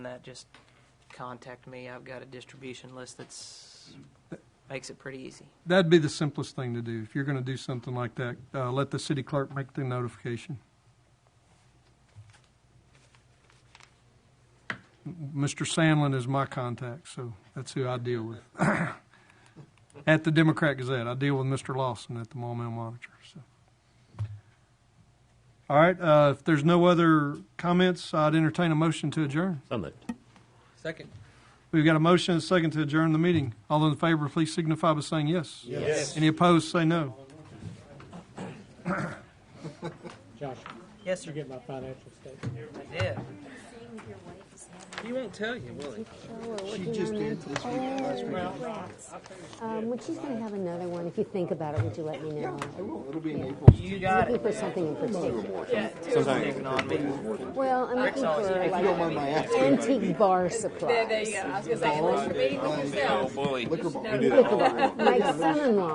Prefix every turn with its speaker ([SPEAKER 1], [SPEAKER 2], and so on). [SPEAKER 1] that, just contact me. I've got a distribution list that's, makes it pretty easy.
[SPEAKER 2] That'd be the simplest thing to do. If you're going to do something like that, uh, let the city clerk make the notification. M- Mr. Sandlin is my contact, so that's who I deal with. at the Democrat Gazette, I deal with Mr. Lawson at the Maumelle Monitor. So. All right, uh, if there's no other comments, I'd entertain a motion to adjourn.
[SPEAKER 3] So moved.
[SPEAKER 1] Second.
[SPEAKER 2] We've got a motion and a second to adjourn the meeting. All in favor, please signify by saying yes. Yes. Any opposed, say no.
[SPEAKER 4] Josh,
[SPEAKER 1] Yes,
[SPEAKER 4] you
[SPEAKER 1] sir.
[SPEAKER 4] get my financial statement.
[SPEAKER 1] I did. He won't tell you, will he?
[SPEAKER 5] She just did this week, last week.
[SPEAKER 6] Um, when she's going to have another one, if you think about it, would you let me know?
[SPEAKER 5] I will. It'll be in April.
[SPEAKER 1] You got
[SPEAKER 6] Looking
[SPEAKER 1] it.
[SPEAKER 6] for something in particular.
[SPEAKER 1] Picking on me.
[SPEAKER 6] Well, I'm looking
[SPEAKER 1] always
[SPEAKER 6] for
[SPEAKER 5] You don't mind
[SPEAKER 6] like
[SPEAKER 5] my asking.
[SPEAKER 6] antique bar supplies.
[SPEAKER 7] There you go. I was gonna say, unless you're meeting with yourself.
[SPEAKER 5] Liquor board.
[SPEAKER 6] Look at that. My son-in-law